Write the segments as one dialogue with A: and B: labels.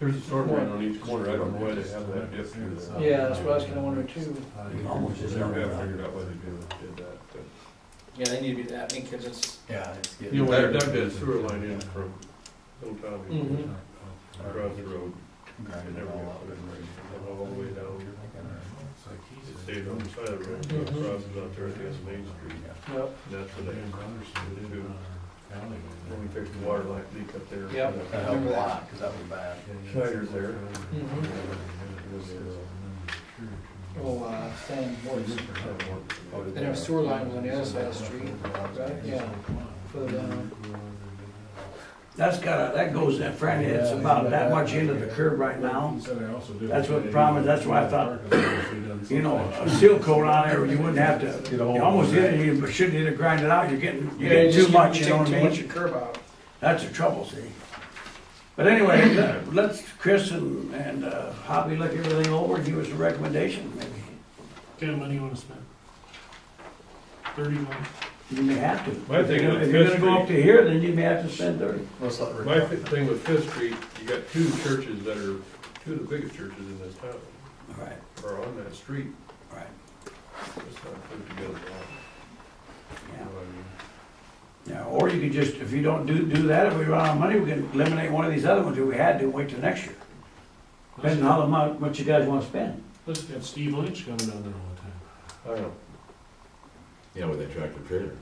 A: There's a sort line on each corner, I don't know why they have that dip through there.
B: Yeah, that's what I was gonna wonder too.
C: Almost
A: They
C: just
A: never have
C: done.
A: figured out why they did did that, but.
B: Yeah, they need to be that, I mean, cause it's,
C: Yeah, it's getting.
A: You know, they dug that sewer line in from Old Tommy,
B: Mhm.
A: across the road,
C: Grind it all up and ready.
A: and all the way down. It stayed on the side of the road,
B: Mhm.
A: crosses out there at the end of Main Street,
B: yep,
A: and that's where they, when we fixed the water line leak up there.
B: Yep.
C: That helped a lot, cause that was bad.
A: Schneider's there.
B: Mhm. oh, uh, Sam Morris.
C: did
B: And their sewer line was on the other side of the street, right, yeah, further down.
D: That's got, that goes in front, it's about that much into the curb right now. That's what the problem is, that's why I thought, You know, a seal coat on there, you wouldn't have to, you almost hit it, you shouldn't hit it, grind it out, you're getting, you're
B: Yeah,
D: getting
B: just
D: too much,
B: take
D: you know what
B: Too
D: I
B: much of
D: mean?
B: curb out.
D: That's the trouble, see? But anyway, let- let's, Chris and, and uh, Hobby look everything over, and give us a recommendation, maybe.
E: What kind of money you wanna spend? Thirty-one?
D: You may have to.
A: My thing with
D: If you're gonna go
A: Fifth
D: up to here, then you may have to spend thirty.
C: Let's let Rick
A: My
C: talk.
A: thi- thing with Fifth Street, you got two churches that are, two of the biggest churches in this town,
D: Right,
A: are on that street,
D: right,
A: it's not put together well.
D: yeah.
A: You know what I mean?
D: Yeah, or you could just, if you don't do, do that, if we run out of money, we can eliminate one of these other ones if we had to, wait till next year. Depends on how much, what you guys wanna spend.
E: Let's get Steve Lynch coming down there all the time.
A: I don't know,
F: Yeah, with that tractor trailer.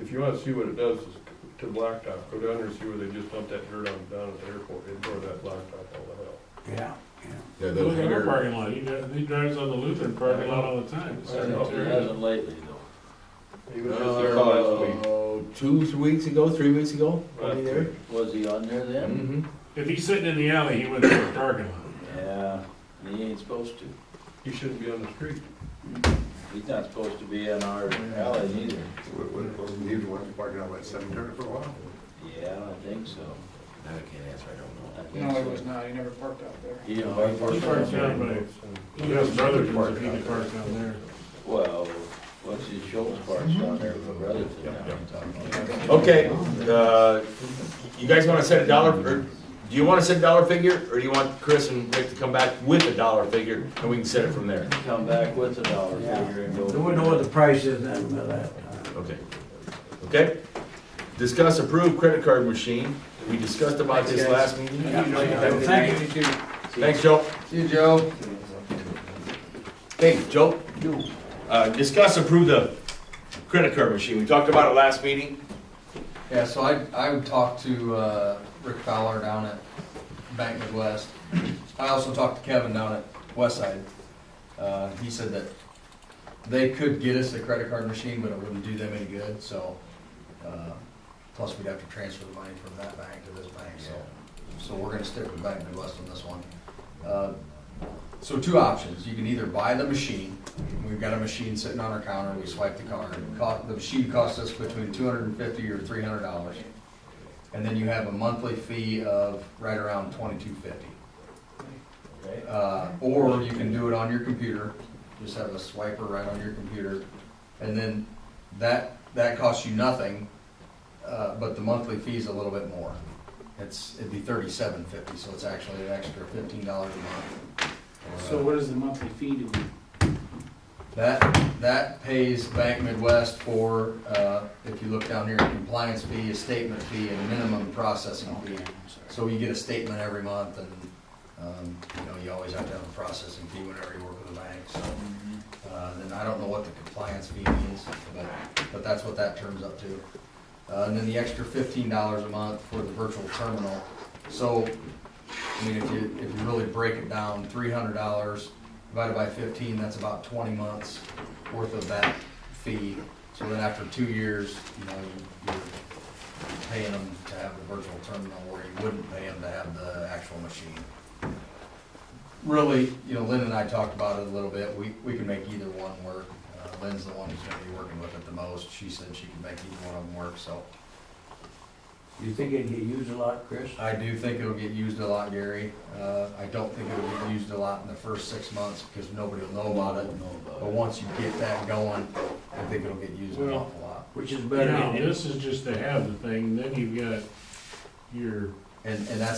A: if you wanna see what it does is to blacktop, go down there and see where they just dumped that dirt on, down at the airport, they tore that blacktop all the hell.
D: Yeah, yeah.
F: Yeah, that
E: Look at our
F: hangar,
E: parking lot, he drives, he drives on the Lutheran parking lot all the time. It's
A: I know.
E: not terrible.
C: lately
A: He was just there last week.
F: uh, two, three weeks ago, three weeks ago, was
A: Last
F: he there?
A: week.
C: though. Was he on there
F: Mm-hmm.
E: If he's sitting in the alley, he went to the parking lot.
C: Yeah, he ain't supposed to.
A: He shouldn't be on the street.
C: He's not supposed to be in our alley either.
G: Wasn't he the one parking out by cemetery for a while?
C: Yeah, I think so.
F: I can't answer, I
C: I
B: No,
C: think
B: it
C: so.
B: was not, he never parked out there.
C: He invited
E: He parks down by, he has brothers, if he could park down there.
C: Well, what's his Schultz parts down there with Brotherton
F: Yeah, yeah.
C: now?
F: don't know. Okay, uh, you guys wanna set a dollar, or, do you wanna set a dollar figure, or do you want Chris and Rick to come back with a dollar figure, and we can set it from there?
C: Come back with a dollar figure and
D: So
C: go.
D: we know what the price is then, but uh, that,
F: Okay. Okay? Discuss approved credit card machine, we discussed about this last meeting.
D: uh, thank you.
C: Mm-hmm.
F: Thanks, Joe.
C: See you, Joe.
F: Hey, Joe? Uh, discuss approve the credit card machine, we talked about it last meeting.
H: Yeah, so I, I would talk to, uh, Rick Fowler down at Bank Midwest. I also talked to Kevin down at Westside. Uh, he said that they could get us a credit card machine, but it wouldn't do them any good, so, uh, plus we'd have to transfer the money from that bank to this bank, so. So we're gonna stick with Bank Midwest on this one. Uh, So two options, you can either buy the machine, we've got a machine sitting on our counter, we swipe the card. Co- The machine costs us between two hundred and fifty or three hundred dollars. And then you have a monthly fee of right around twenty-two fifty. Uh, or you can do it on your computer, just have a swiper right on your computer. And then that, that costs you nothing, uh, but the monthly fee's a little bit more. It's, it'd be thirty-seven fifty, so it's actually an extra fifteen dollars a month. Uh,
I: So what is the monthly fee to be?
H: That, that pays Bank Midwest for, uh, if you look down here, compliance fee, a statement fee, and minimum processing fee. So you get a statement every month and, um, you know, you always have to have a processing fee whenever you work with a bank, so. Uh, then I don't know what the compliance fee means, but, but that's what that turns up to. Uh, and then the extra fifteen dollars a month for the virtual terminal. So, I mean, if you, if you really break it down, three hundred dollars divided by fifteen, that's about twenty months worth of that fee. So then after two years, you know, you're paying them to have the virtual terminal where you wouldn't pay them to have the actual machine. Really, you know, Lynn and I talked about it a little bit. We, we can make either one work. Uh, Lynn's the one who's gonna be working with it the most. She said she could make either one of them work, so.
D: You think it'd get used a lot, Chris?
H: I do think it'll get used a lot, Gary. Uh, I don't think it'll get used a lot in the first six months because nobody will know about it. But once you get that going, I think it'll get used an
E: Well-
H: awful lot.
D: Which is better.
E: Now, this is just to have the thing, then you've got your
H: And, and that's